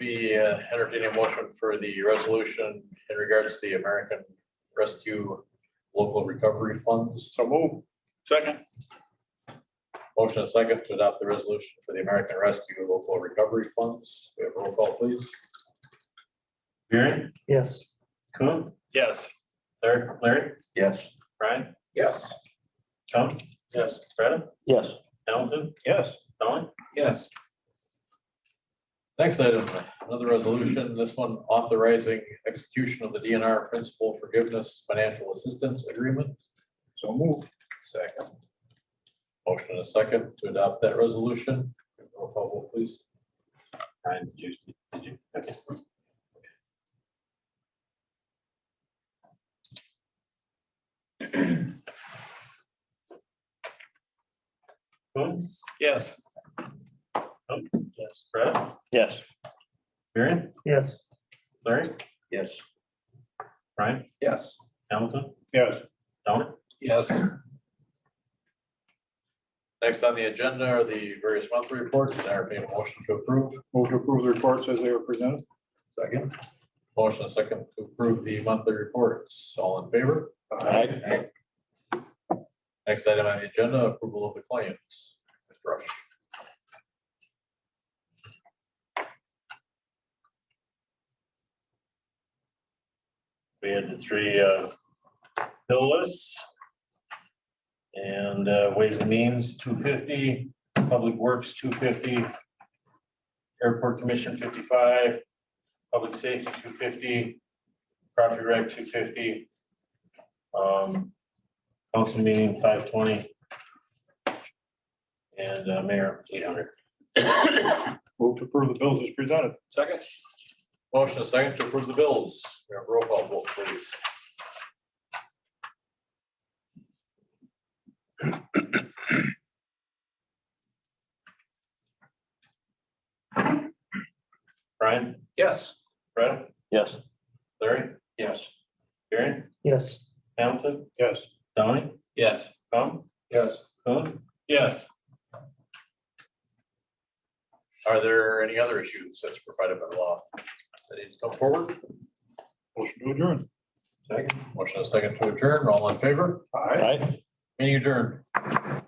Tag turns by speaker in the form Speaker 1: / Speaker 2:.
Speaker 1: Be uh, entertaining a motion for the resolution in regards to the American Rescue Local Recovery Funds.
Speaker 2: So move. Second.
Speaker 1: Motion and second to adopt the resolution for the American Rescue Local Recovery Funds. We have a roll call, please.
Speaker 3: Aaron,
Speaker 4: Yes.
Speaker 3: Coon,
Speaker 2: Yes.
Speaker 3: Larry, Larry,
Speaker 1: Yes.
Speaker 3: Brian,
Speaker 2: Yes.
Speaker 3: Tom,
Speaker 1: Yes.
Speaker 3: Freda,
Speaker 4: Yes.
Speaker 3: Hamilton,
Speaker 2: Yes.
Speaker 3: Don.
Speaker 2: Yes.
Speaker 1: Next item, another resolution, this one authorizing execution of the DNR Principal Forgiveness Financial Assistance Agreement.
Speaker 2: So move.
Speaker 1: Second. Motion and a second to adopt that resolution. Roll call, vote, please.
Speaker 3: Brian, did you, did you? okay. Coon,
Speaker 2: Yes.
Speaker 3: Coon, yes, Freda,
Speaker 4: Yes.
Speaker 3: Aaron,
Speaker 4: Yes.
Speaker 3: Larry,
Speaker 1: Yes.
Speaker 3: Brian,
Speaker 2: Yes.
Speaker 3: Hamilton,
Speaker 2: Yes.
Speaker 3: Don.
Speaker 2: Yes.
Speaker 1: Next on the agenda are the various monthly reports, and entertain a motion to approve.
Speaker 2: Move to approve the reports as they were presented.
Speaker 1: Second. Motion and second to approve the monthly reports. All in favor?
Speaker 4: Aye.
Speaker 1: Next item on the agenda, approval of the claims. Mr. Rush.
Speaker 3: We had the three uh, bill lists. And uh, Ways and Means, two fifty, Public Works, two fifty, Airport Commission, fifty-five, Public Safety, two fifty, Property Right, two fifty, um, Council Meeting, five twenty, and uh, Mayor, eight hundred.
Speaker 2: Move to approve the bills as presented.
Speaker 1: Second. Motion and second to approve the bills. We have roll call vote, please.
Speaker 3: Brian,
Speaker 2: Yes.
Speaker 3: Brett,
Speaker 4: Yes.
Speaker 3: Larry? Yes. Aaron,
Speaker 4: Yes.
Speaker 3: Hamilton,
Speaker 2: Yes.
Speaker 3: Donnie,
Speaker 2: Yes.
Speaker 3: Tom,
Speaker 1: Yes.
Speaker 3: Coon?
Speaker 2: Yes.
Speaker 1: Are there any other issues that's provided by law that need to come forward?
Speaker 2: Motion to adjourn.
Speaker 1: Second. Motion and second to adjourn. All in favor?
Speaker 2: Aye.
Speaker 4: Aye.
Speaker 1: Meeting adjourned.